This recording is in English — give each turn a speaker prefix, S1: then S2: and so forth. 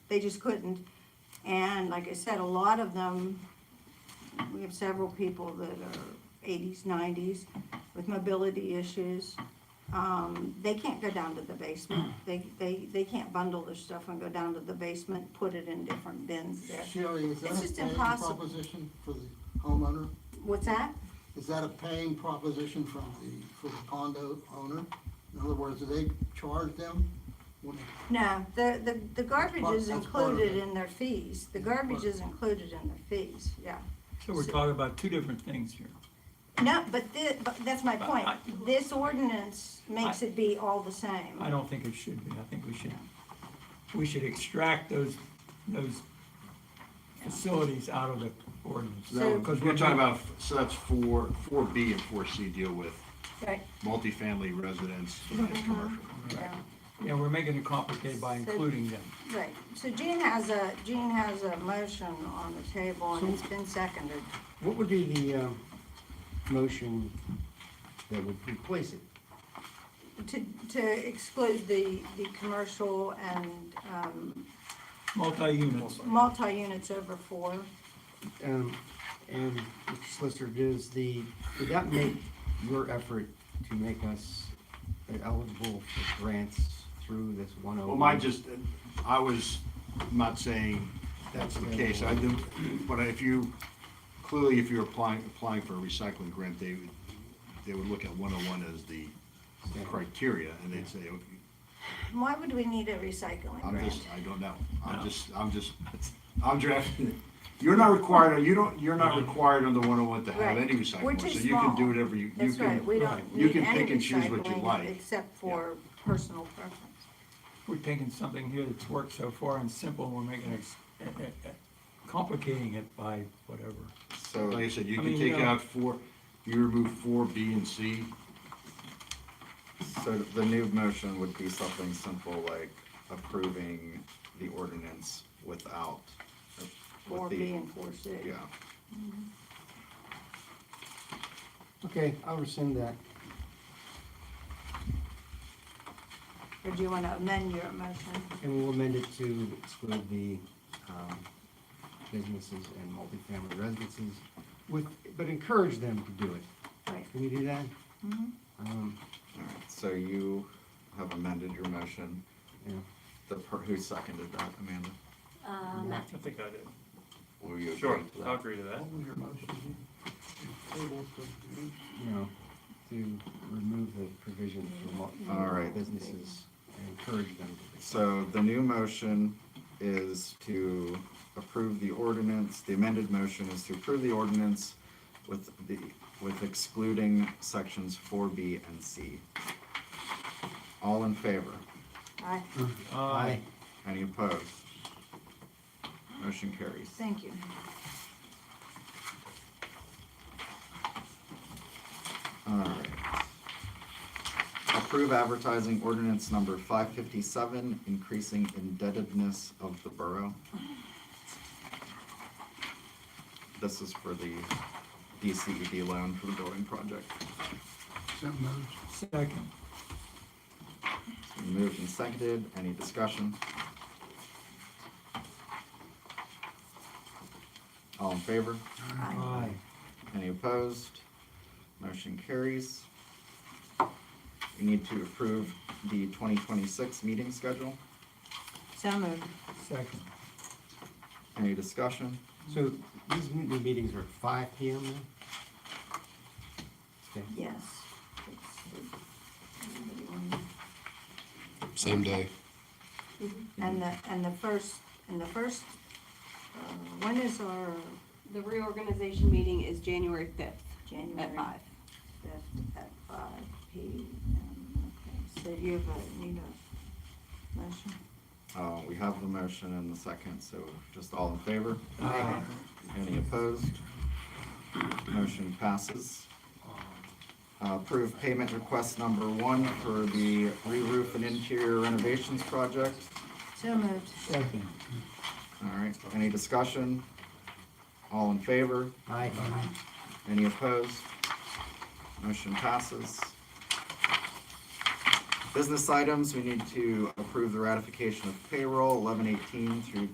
S1: they just couldn't. And like I said, a lot of them, we have several people that are eighties, nineties with mobility issues. Um, they can't go down to the basement, they, they, they can't bundle their stuff and go down to the basement, put it in different bins there.
S2: Sherry, is that
S1: It's just
S2: a paying
S1: impossible.
S2: proposition for the homeowner?
S1: What's that?
S2: Is that a paying proposition from the, for the condo owner? In other words, do they charge them? when they-
S1: No, the, the, the garbage
S2: Well,
S1: is
S2: that's part of
S1: included
S2: it.
S1: in their fees, the garbage is included in their fees, yeah.
S3: So we're talking about two different things here.
S1: No, but thi, but that's my
S3: But
S1: point,
S3: I-
S1: this ordinance makes
S3: I-
S1: it be all the same.
S3: I don't think it should be. I think we should, we should extract those, those facilities out of the ordinance.
S1: So-
S4: Because we're talking about, so that's four, four B and four C deal with
S1: Right,
S4: multifamily residence and commercial.
S1: yeah.
S3: Yeah, we're making it complicated by including them.
S1: Right, so Gene has a, Gene has a motion on the table and it's been seconded.
S5: What would be the, uh, motion that would replace it?
S1: To, to exclude the, the commercial and, um,
S3: Multi-units.
S1: multi-units over four.
S5: Um, and Mr. Solicitor, does the, would that make your effort to make us eligible for grants through this one oh one?
S4: Well, my just, I was not saying that's the case. I do, but if you, clearly if you're applying, applying for a recycling grant, they would, they would look at one oh one as the criteria and they'd say, okay,
S1: Why would we need a recycling
S4: I'm
S1: grant?
S4: just, I don't know.
S3: No.
S4: I'm just, I'm just, I'm drafting it. You're not required, you don't, you're not required under one oh one to have
S1: Right.
S4: any recycling.
S1: We're
S4: So
S1: too
S4: you can do
S1: small.
S4: whatever you, you
S1: That's right, we
S4: can,
S1: don't
S4: you
S1: need
S4: can pick
S1: any
S4: and choose what you
S1: recycling
S4: like.
S1: except for personal preference.
S3: We're taking something here that's worked so far and simple, and we're making it, eh, eh, eh, complicating it by whatever.
S4: So like I said, you
S3: I
S4: can
S3: mean, uh,
S4: take
S3: you know-
S4: out four, you remove four, B and C.
S6: So the new motion would be something simple like approving the ordinance without. with
S1: Four
S6: the-
S1: B and four C.
S6: Yeah.
S5: Okay, I'll rescind that.
S1: Or do you want to amend your motion?
S5: And we'll amend it to exclude the, um, businesses and multifamily residences with, but encourage them to do it.
S1: Right.
S5: Can we do that? Um,
S6: All right, so you have amended your motion.
S5: yeah.
S6: The, per- who seconded that, Amanda?
S7: I think I did.
S6: Will you agree
S7: Sure,
S6: to that?
S7: I'll agree to that.
S2: What was your motion? Table to-
S5: you know, to remove the provision for mul-
S6: All
S5: for
S6: right.
S5: businesses and encourage them to.
S6: So the new motion is to approve the ordinance, the amended motion is to approve the ordinance with the, with excluding sections four B and C. All in favor?
S1: I,
S5: Aye.
S6: Any opposed? Motion carries.
S1: thank you.
S6: Alright. Approve advertising ordinance number five fifty-seven, increasing indebtedness of the borough. This is for the DCED loan for the building project.
S2: So moved.
S3: Second,
S6: It's been Moved and seconded, any discussion? All in favor?
S1: Aye.
S3: aye.
S6: Any opposed? Motion carries. We need to approve the 2026 meeting schedule.
S1: So moved.
S3: Second,
S6: Any discussion?
S5: So these m- the meetings are at five P M then? Okay.
S1: Yes.
S8: Same day.
S1: Mm-hmm. And the, and the first, and the first, uh, when is our
S9: The reorganization meeting is January fifth
S1: January?
S9: at five.
S1: Fifth At five P M, okay. So you have a, need a motion?
S6: Uh, We have the motion and the second, so just all in favor?
S3: Aye.
S6: Any opposed? Motion passes. Uh, Approve payment request number one for the re-roof and interior renovations project.
S1: So moved.
S3: second,
S6: All right, any discussion? All in favor?
S5: Aye.
S6: Any opposed? Motion passes. Business items, we need to approve the ratification of payroll eleven eighteen through